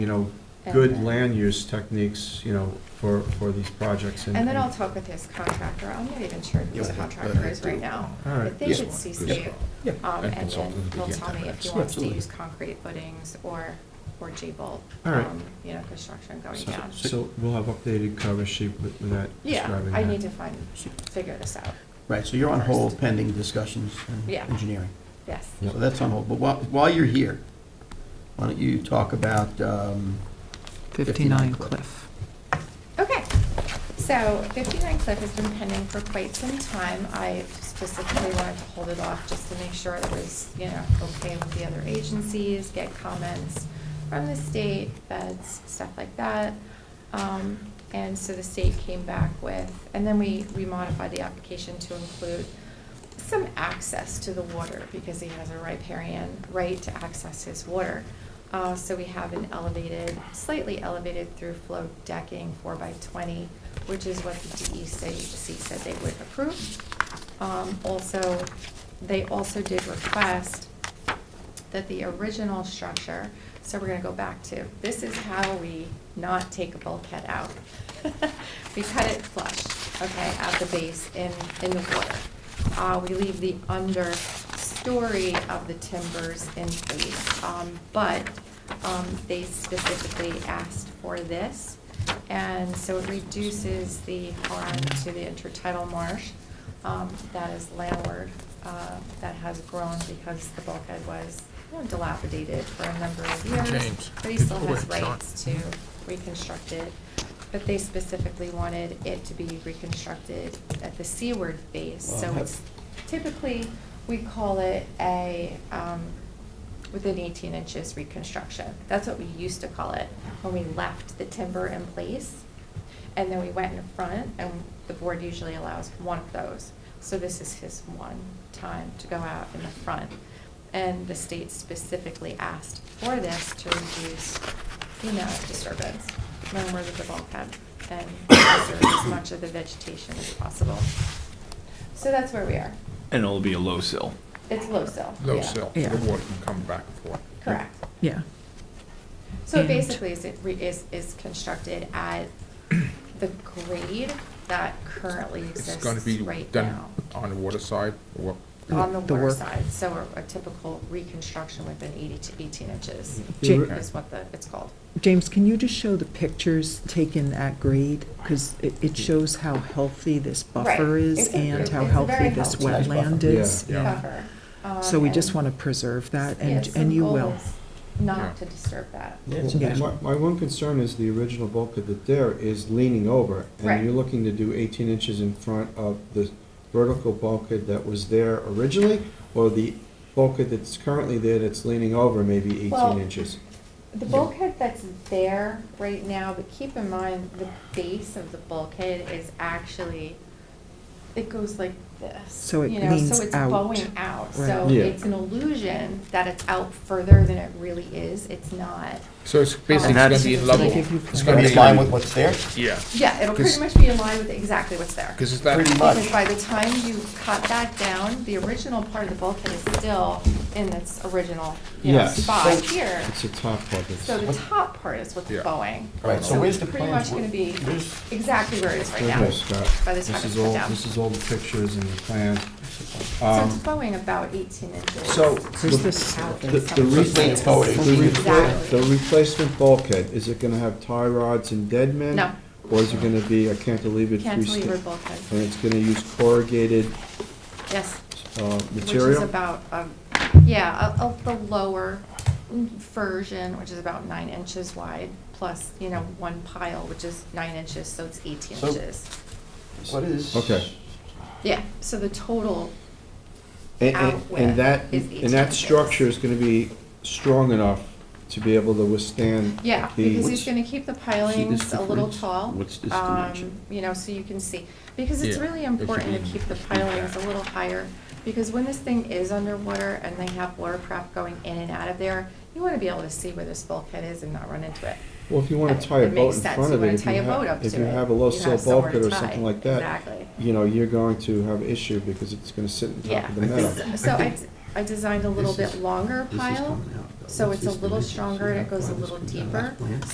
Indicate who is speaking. Speaker 1: you know, good land use techniques, you know, for, for these projects.
Speaker 2: And then I'll talk with his contractor, I'm not even sure who his
Speaker 3: Yeah,
Speaker 2: contractor is right
Speaker 3: do.
Speaker 2: now.
Speaker 1: All
Speaker 2: I
Speaker 1: right.
Speaker 2: think
Speaker 3: Yeah.
Speaker 2: it's CC.
Speaker 4: Yeah.
Speaker 2: Um,
Speaker 5: And
Speaker 2: and then
Speaker 5: consultant, we
Speaker 2: he'll
Speaker 5: get
Speaker 2: tell me
Speaker 5: that.
Speaker 2: if he wants to
Speaker 4: Absolutely.
Speaker 2: use concrete footings or, or J-bolt.
Speaker 1: All right.
Speaker 2: um, You know, construction going
Speaker 1: So-
Speaker 2: down.
Speaker 1: So we'll have updated cover sheet with with that
Speaker 2: Yeah,
Speaker 1: describing that.
Speaker 2: I need to find, figure this out,
Speaker 3: Right, so you're on hold
Speaker 2: First.
Speaker 3: pending discussions and
Speaker 2: Yeah.
Speaker 3: engineering.
Speaker 2: yes.
Speaker 3: So that's on hold. But while, while you're here, why don't you talk about, um, 59
Speaker 6: 59
Speaker 3: Cliff.
Speaker 6: Cliff.
Speaker 2: Okay, so 59 Cliff has been pending for quite some time. I specifically wanted to hold it off just to make sure it was, you know, okay with the other agencies, get comments from the state, feds, stuff like that. Um, And so the state came back with, and then we, we modified the application to include some access to the water because he has a riparian right to access his water. Uh, so we have an elevated, slightly elevated through flow decking four by twenty, which is what the DEC said they would approve. Um, also, they also did request that the original structure, so we're gonna go back to, this is how we not take a bulkhead out. We cut it flush, okay, at the base in, in the water. Uh, we leave the understory of the timbers in place, um, but, um, they specifically asked for this. And so it reduces the harm to the intertidal marsh, um, that is landward, uh, that has grown because the bulkhead was you know, dilapidated for a number of years.
Speaker 5: James,
Speaker 2: But he
Speaker 5: get
Speaker 2: still
Speaker 5: away,
Speaker 2: has
Speaker 5: John.
Speaker 2: rights to reconstruct it. But they specifically wanted it to be reconstructed at the seaward face,
Speaker 3: Well,
Speaker 2: so
Speaker 3: have-
Speaker 2: it's typically, we call it a, um, within eighteen inches reconstruction. That's what we used to call it when we left the timber in place. And then we went in front and the board usually allows one of those. So this is his one time to go out in the front. And the state specifically asked for this to reduce, you know, disturbance, remember the bulkhead, and preserve as much of the vegetation as possible. So that's where we are.
Speaker 7: And it'll be a low sill.
Speaker 2: It's low sill.
Speaker 5: Low
Speaker 2: yeah.
Speaker 5: sill,
Speaker 6: Yeah.
Speaker 5: the water can come back and forth.
Speaker 2: Correct.
Speaker 6: Yeah.
Speaker 2: So it
Speaker 6: And-
Speaker 2: basically, is, it re- is, is constructed at the grade that currently
Speaker 5: It's
Speaker 2: exists
Speaker 5: going to be
Speaker 2: right
Speaker 5: done
Speaker 2: now.
Speaker 5: on the water side, or
Speaker 2: On the
Speaker 6: The
Speaker 2: water
Speaker 6: work.
Speaker 2: side, so a a typical reconstruction within eighty to eighteen inches
Speaker 6: Ja-
Speaker 5: Mm-hmm.
Speaker 2: is what the, it's called.
Speaker 6: James, can you just show the pictures taken at grade? Because it, it shows how healthy this buffer
Speaker 2: Right.
Speaker 6: is
Speaker 2: It's a-
Speaker 6: and how
Speaker 2: it's a very
Speaker 6: healthy this
Speaker 2: healthy Nice
Speaker 6: wetland
Speaker 3: buffer.
Speaker 6: is.
Speaker 1: Yeah.
Speaker 2: Buffer. Um,
Speaker 6: So we just
Speaker 2: and-
Speaker 6: want to preserve that
Speaker 2: yeah,
Speaker 6: and,
Speaker 2: so
Speaker 6: and
Speaker 2: the
Speaker 6: you
Speaker 2: goal
Speaker 6: will.
Speaker 2: is Not
Speaker 5: Yeah.
Speaker 2: to disturb that.
Speaker 3: it's
Speaker 6: Yeah.
Speaker 3: a-
Speaker 1: My, my one concern is the original bulkhead that there is leaning over.
Speaker 2: Right.
Speaker 1: And you're looking to do 18 inches in front of the vertical bulkhead that was there originally, or the bulkhead that's currently there that's leaning over maybe
Speaker 2: Well,
Speaker 1: 18 inches?
Speaker 2: The bulkhead that's there right now, but keep in mind, the base of the bulkhead is actually, it goes like this.
Speaker 6: So it
Speaker 2: you know,
Speaker 6: leans
Speaker 2: So it's
Speaker 6: out.
Speaker 2: bowing out,
Speaker 6: Right.
Speaker 2: so
Speaker 1: Yeah.
Speaker 2: it's an illusion that it's out further than it really is, it's not. um,
Speaker 5: So it's basically
Speaker 7: And
Speaker 5: going to be
Speaker 7: that's-
Speaker 5: level.
Speaker 6: They give you
Speaker 5: It's
Speaker 3: Gonna
Speaker 5: going
Speaker 3: be
Speaker 5: to
Speaker 3: in
Speaker 5: be
Speaker 3: line with what's there?
Speaker 5: Yeah,
Speaker 2: Yeah, it'll pretty much
Speaker 5: Because-
Speaker 2: be in line with exactly what's there.
Speaker 5: because it's
Speaker 3: Pretty
Speaker 5: that,
Speaker 3: much.
Speaker 2: Because by the time you cut that down, the original part of the bulkhead is still in its original, you know,
Speaker 1: Yes.
Speaker 2: spot
Speaker 3: So-
Speaker 2: here.
Speaker 1: It's a top part that's...
Speaker 2: So the top part is what's
Speaker 5: Yeah.
Speaker 2: bowing.
Speaker 3: Right, so where's
Speaker 2: it's
Speaker 3: the
Speaker 2: pretty
Speaker 3: plans?
Speaker 2: much gonna be
Speaker 3: Where's-
Speaker 2: exactly where it is right
Speaker 1: There you
Speaker 2: now.
Speaker 1: go, Scott.
Speaker 2: By the time
Speaker 1: This
Speaker 2: it's
Speaker 1: is
Speaker 2: put
Speaker 1: all,
Speaker 2: down.
Speaker 1: this is all the pictures and the plans.
Speaker 2: So
Speaker 1: Um,
Speaker 2: it's bowing about eighteen inches.
Speaker 1: So,
Speaker 6: Here's
Speaker 1: the,
Speaker 6: this-
Speaker 1: the, the
Speaker 3: Leaning
Speaker 1: replacement,
Speaker 3: forward.
Speaker 1: the repla-
Speaker 2: Exactly.
Speaker 1: the replacement bulkhead, is it gonna have tie rods and dead men?
Speaker 2: No.
Speaker 1: Or is it gonna be a cantilevered
Speaker 2: Cantilever
Speaker 1: freestanding?
Speaker 2: bulkhead,
Speaker 1: And it's gonna use corrugated,
Speaker 2: yes,
Speaker 1: uh,
Speaker 2: which
Speaker 1: material?
Speaker 2: is about, um, yeah, a, a, the lower version, which is about nine inches wide, plus, you know, one pile, which is nine inches, so it's eighteen
Speaker 3: So-
Speaker 2: inches.
Speaker 3: What is?
Speaker 1: Okay.
Speaker 2: Yeah, so the total
Speaker 1: And,
Speaker 2: out
Speaker 1: and-
Speaker 2: with
Speaker 1: and that,
Speaker 2: is
Speaker 1: and that
Speaker 2: 18
Speaker 1: structure
Speaker 2: inches.
Speaker 1: is gonna be strong enough to be able to withstand the.
Speaker 2: Yeah, because he's gonna keep the pilings
Speaker 8: this
Speaker 2: a little
Speaker 8: difference?
Speaker 2: tall.
Speaker 8: What's this
Speaker 2: um,
Speaker 8: dimension?
Speaker 2: You know, so you can see, because it's
Speaker 5: Yeah,
Speaker 2: really
Speaker 5: it should
Speaker 2: important
Speaker 5: be
Speaker 2: to keep the
Speaker 5: in-
Speaker 2: pilings a little higher, because when this thing is underwater and they have watercraft going in and out of there, you wanna be able to see where this bulkhead is and not run into it.
Speaker 1: Well, if you wanna
Speaker 2: It-
Speaker 1: tie a
Speaker 2: it
Speaker 1: boat
Speaker 2: makes
Speaker 1: in
Speaker 2: sense.
Speaker 1: front
Speaker 2: You
Speaker 1: of
Speaker 2: wanna
Speaker 1: it, if
Speaker 2: tie
Speaker 1: you
Speaker 2: a boat
Speaker 1: have,
Speaker 2: up
Speaker 1: if
Speaker 2: to
Speaker 1: you
Speaker 2: it.
Speaker 1: have a low
Speaker 2: You
Speaker 1: sill
Speaker 2: have somewhere
Speaker 1: bulkhead
Speaker 2: to
Speaker 1: or
Speaker 2: tie.
Speaker 1: something like that,
Speaker 2: Exactly.
Speaker 1: you know, you're going to have issue because it's gonna sit on top
Speaker 2: Yeah.
Speaker 1: of the metal.
Speaker 2: So I, I designed a little
Speaker 3: This is-
Speaker 2: bit longer
Speaker 3: This is
Speaker 2: pile,
Speaker 3: coming out, though.
Speaker 2: so
Speaker 3: What's
Speaker 2: it's a
Speaker 3: this
Speaker 2: little
Speaker 3: dimension?
Speaker 2: stronger and it
Speaker 3: See how
Speaker 2: goes a
Speaker 3: far this
Speaker 2: little
Speaker 3: comes out last
Speaker 2: deeper.
Speaker 3: plan?